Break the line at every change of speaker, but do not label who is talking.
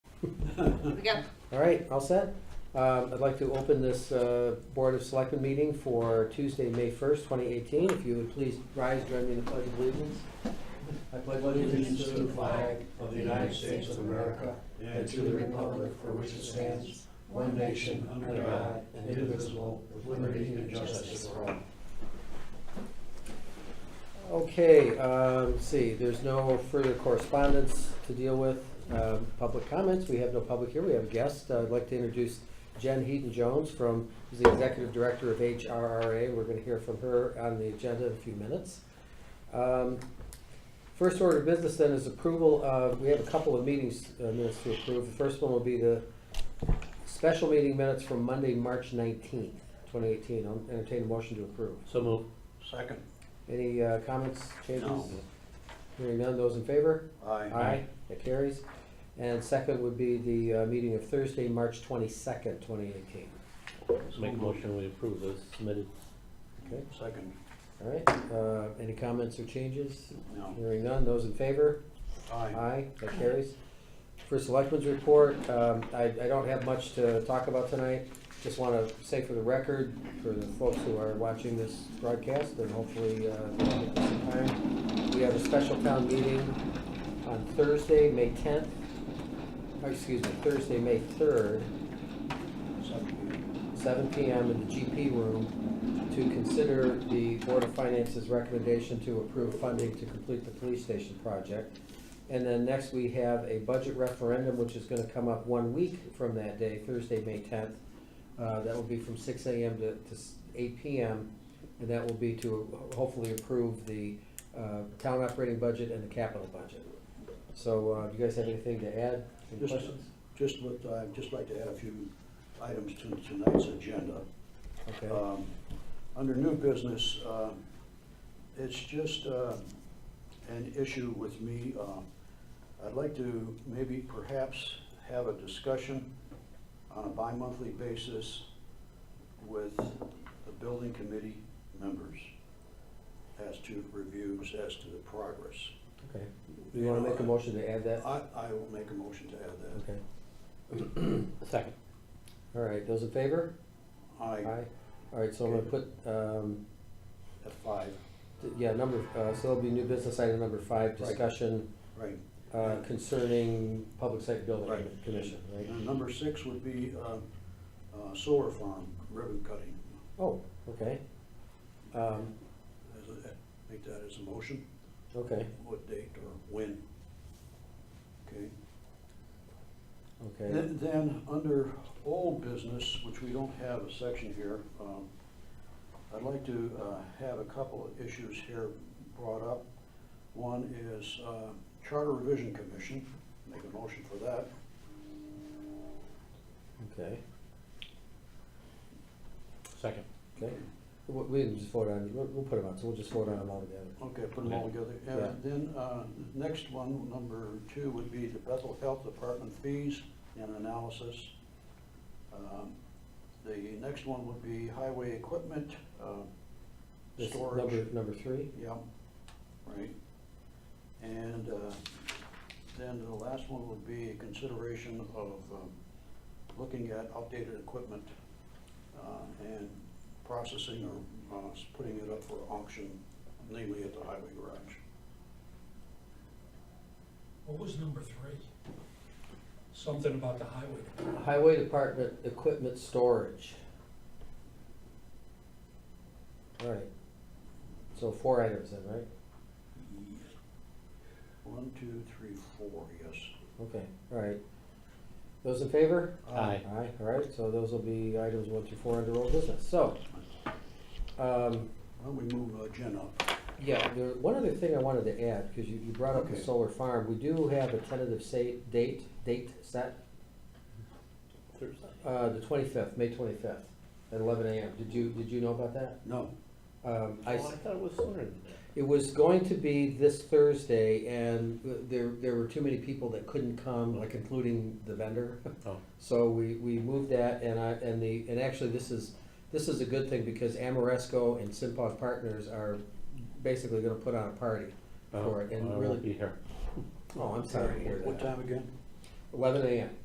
We got
All right, all set. Um, I'd like to open this uh, Board of Selectmen meeting for Tuesday, May 1st, 2018. If you would please rise, join me in the Pledge of Allegiance. I pledge
allegiance to the flag of the United States of America and to the republic for which it stands, one nation, under God, and indivisible, with liberty and justice for all.
Okay, um, let's see, there's no further correspondence to deal with. Um, Public comments, we have no public here, we have a guest. Uh, I'd like to introduce Jen Heaton Jones from, who's the Executive Director of HRRA. We're going to hear from her on the agenda in a few minutes. Um, First order of business then is approval of, we have a couple of meetings uh, minutes to approve. The first one will be the special meeting minutes from Monday, March 19th, 2018. I'll entertain a motion to approve.
So move.
Second.
Any uh, comments, changes?
No.
Hearing none, those in favor?
Aye.
That carries. And second would be the uh, meeting of Thursday, March twenty-second, twenty eighteen.
Make a motion, we approve those submitted.
Okay,
Second.
all right. Uh, Any comments or changes?
No.
Hearing none, those in favor?
Aye.
Aye, that carries. For selectmen's report, um, I, I don't have much to talk about tonight. Just want to say for the record, for the folks who are watching this broadcast, and hopefully, uh, they'll get this in time, we have a special town meeting on Thursday, May tenth, uh, excuse me, Thursday, May third,
Second.
seven PM in the GP room to consider the Board of Finance's recommendation to approve funding to complete the police station project. And then next, we have a budget referendum, which is gonna come up one week from that day, Thursday, May tenth. Uh, that will be from six AM to, to s- eight PM, and that will be to hopefully approve the, uh, town operating budget and the capital budget. So, uh, do you guys have anything to add? Any
Just-
questions?
Just what, I'd just like to add a few items to tonight's agenda.
Okay.
Um, Under new business, um, it's just uh, an issue with me. Um, I'd like to maybe perhaps have a discussion on a bi-monthly basis with the building committee members as to reviews, as to the progress. Uh,
Okay. Do you wanna make a motion to add that?
I, I will make a motion to add that.
Okay.
Second.
All right, those in favor?
I,
All right, so I'm gonna put, um,
at five,
th- yeah, number, uh, so that'll be new business item number five,
Right.
discussion
right.
uh, concerning public site building
Right.
commission, right?
And number six would be uh, uh, solar farm ribbon cutting.
Oh, okay. Um,
As a- Make that as a motion,
okay,
what date or when? Okay.
okay,
Then, then, under old business, which we don't have a section here, um, I'd like to uh, have a couple of issues here brought up. One is uh, Charter Revision Commission, make a motion for that.
okay,
Second.
okay. We, we didn't just vote on, it. we'll, we'll put them on, so we'll just vote on them all together.
Okay, put them all together.
Yeah.
And then, uh, next one, number two, would be the Bethel Health Department fees and analysis. Um, The next one would be highway equipment, uh,
This is
storage.
Number, number three,
Yeah, right. And uh, then the last one would be consideration of um, looking at updated equipment uh, and processing or uh, putting it up for auction, namely at the highway garage.
What was number three? Something about the highway.
highway department equipment storage. All right, so four items then, right?
One, two, three, four, yes.
Okay, all right. Those in favor?
Aye.
Aye, all right, so those will be items one through four under old business, so. um,
Why don't we move uh, Jen up?
Yeah, there, one other thing I wanted to add, because you, you brought up the
Okay.
solar farm, we do have a tentative sa- date, date set,
Thursday.
uh, the twenty-fifth, May twenty-fifth, at eleven AM, did you, did you know about that?
No,
Um,
Oh, I
I, s-
thought it was sooner than that.
it was going to be this Thursday, and there, there were too many people that couldn't come, like including the vendor.
Oh.
So we, we moved that and I, and the, and actually this is, this is a good thing because Amoresco and Simpoff Partners are basically gonna put on a party for it
I
and
won't
really,
Be here.
oh, I'm sorry to hear
what
that.
time again?
Eleven AM,